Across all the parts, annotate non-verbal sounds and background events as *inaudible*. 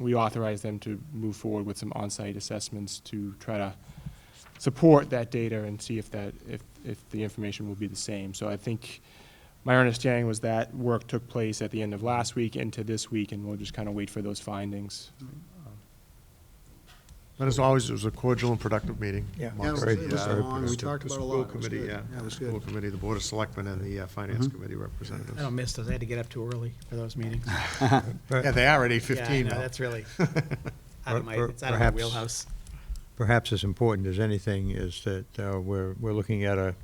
we authorize them to move forward with some on-site assessments to try to support that data and see if that, if, if the information will be the same. So I think my understanding was that work took place at the end of last week into this week, and we'll just kind of wait for those findings. And as always, it was a cordial and productive meeting. Yeah. Mark. Yeah, it was- Great it was job. long. We The- talked the about a school lot. It was committee, good. yeah. Yeah, it was School good. committee, the Board of Selectmen, and the uh, Finance Committee I don't representatives. miss those. I had to get up too early for those *laughs* meetings. Yeah, they are at eight Yeah, I fifteen know, now. That's really out of my, Per- it's out of my perhaps- wheelhouse. Perhaps as important as anything is that uh, we're, we're looking at a,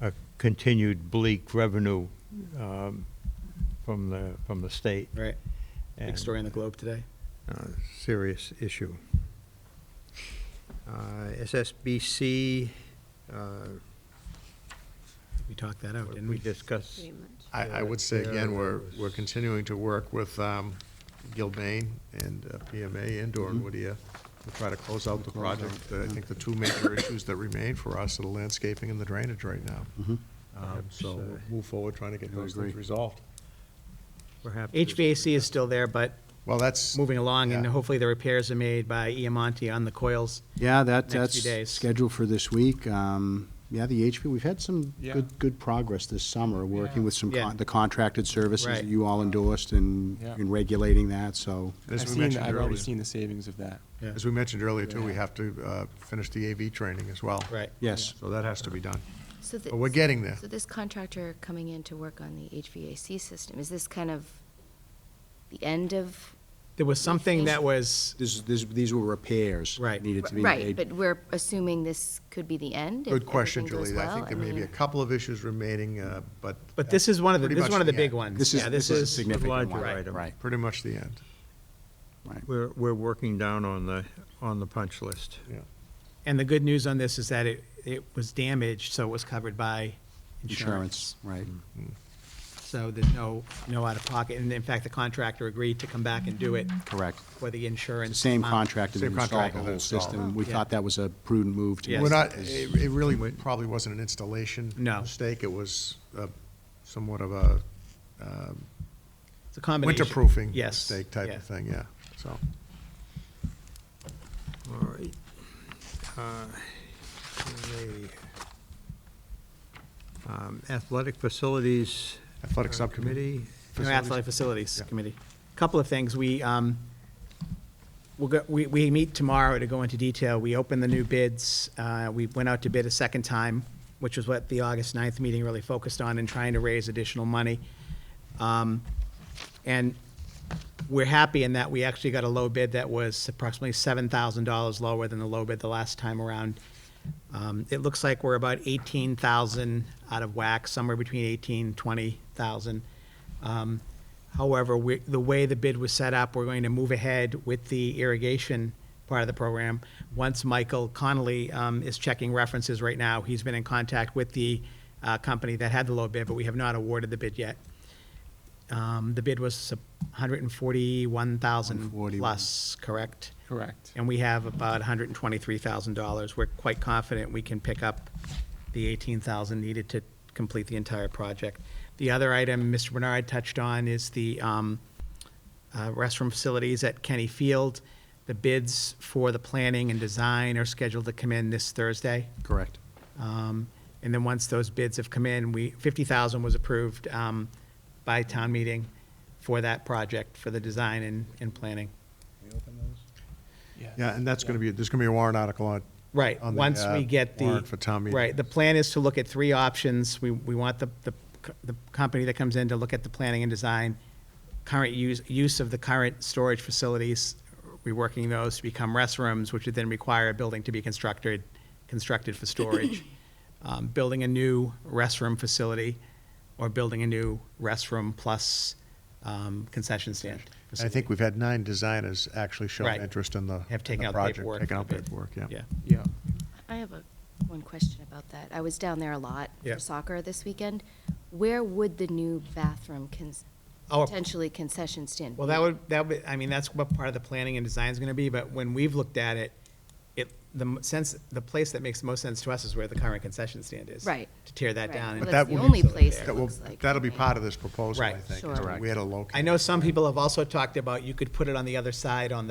a continued bleak revenue um, from the, from the state. Right. Big and, story in the Globe today. uh, Serious issue. Uh, SSBC, uh, We talked that out, didn't we we? discussed, *laughs* I, I would say Yeah, again, it we're, was- we're continuing to work with um, Gilbane and uh, PMA and Mm-hmm. Doran Whittier to try to close out the project. Uh, I think the two major issues that remain for us are the landscaping and the drainage right now. Mm-hmm. Um, So uh, we'll move forward, trying to get those things resolved. perhaps. there's- HVAC is still there, but Well, that's. moving along, and Yeah. hopefully the repairs are made by Iamonte on the coils. Yeah, that, next few that's days. scheduled for this week. Um, yeah, the HP, we've had some Yeah. good, good progress this summer, working with some, Yeah. con- the contracted services Right. that you all endorsed and, Yeah. and regulating that, so. As I've we seen- mentioned I've already earlier, seen the savings of that. Yeah. as we mentioned earlier too, we have to uh, finish the AV training as well. Right. Yes. So that has to be done. So thi- But we're getting there. So this contractor coming in to work on the HVAC system, is this kind of the end of? There was something that was, This, is- this, these were repairs. Right. Needed to be Right, made. but we're assuming this could be the end? if Good question, everything goes Julie. I well? think there may be mean- a couple of issues remaining, uh, but. but this is one of the, pretty this is much one of the big end. ones. This is, Yeah, this is a significant one. larger item. Right, Pretty much the end. right. We're, we're working down on the, on the punch list. Yeah. And the good news on this is that it, it was damaged, so it was covered by Insurance, insurance. right. So there's no, no out of pocket. And in fact, the contractor agreed to come back and do it Correct. for the The insurance. same amount. contractor that Same installed contractor the that whole installed system. We Yeah. thought that was a prudent move to. Yes. make We're not, eh, this- it it really probably wasn't an installation. No. Mistake. It was uh, somewhat of a It's a combination. winterproofing Yes, mistake type yeah. of thing, yeah. So, All right. Uh, the, um, Athletic Facilities. athletic uh, subcommittee. Committee. No, Facilities. Athletic Facilities Yeah. Committee. Couple of things, we, um, we'll go, we, we meet tomorrow to go into detail. We opened the new bids, uh, we went out to bid a second time, which was what the August 9th meeting really focused on in trying to raise additional money. Um, And we're happy in that we actually got a low bid that was approximately seven thousand dollars lower than the low bid the last time around. Um, it looks like we're about eighteen thousand out of whack, somewhere between eighteen, twenty thousand. Um, however, we, the way the bid was set up, we're going to move ahead with the irrigation part of the program. Once Michael Connolly, um, is checking references right now, he's been in contact with the, uh, company that had the low bid, but we have not awarded the bid yet. Um, the bid was hundred and forty-one thousand 141. plus, correct? Correct. And we have about hundred and twenty-three thousand dollars. We're quite confident we can pick up the eighteen thousand needed to complete the entire project. The other item Mr. Bernard touched on is the, um, uh, restroom facilities at Kenny Field. The bids for the planning and design are scheduled to come in this Thursday. Correct. Um, And then once those bids have come in, we, 50,000 was approved um, by town meeting for that project, for the design and, and planning. Yeah, and that's going to be, there's going to be a warrant article on. Right, on the, once uh, we get the. warrant for town meeting. Right, the plan is to look at three options. We, we want the, the, co- the company that comes in to look at the planning and design, current use, use of the current storage facilities, reworking those to become restrooms, which would then require a building to be constructed, constructed for storage. Um, Building a new restroom facility, or building a new restroom plus um, concession stand. I facility. think we've had nine designers actually show Right. interest in the. Have in taken the out the project, paperwork Taken for out the bid. paperwork, yeah. Yeah. Yeah. I have a, one question about that. I was down there a lot Yeah. for soccer this weekend. Where would the new bathroom cons- Oh. Our- potentially concession stand? Well, that would, that would, I mean, that's what part of the planning and design is gonna be, but when we've looked at it, it, the m- sense, the place that makes the most sense to us is where the current concession stand is. Right. To tear that Right. down. Well, and- that's the only place it That will, looks like. that'll be right? part of this proposal, I Right. think. is Sure. Where to locate. I know some people have also talked about you could put it on the other side on the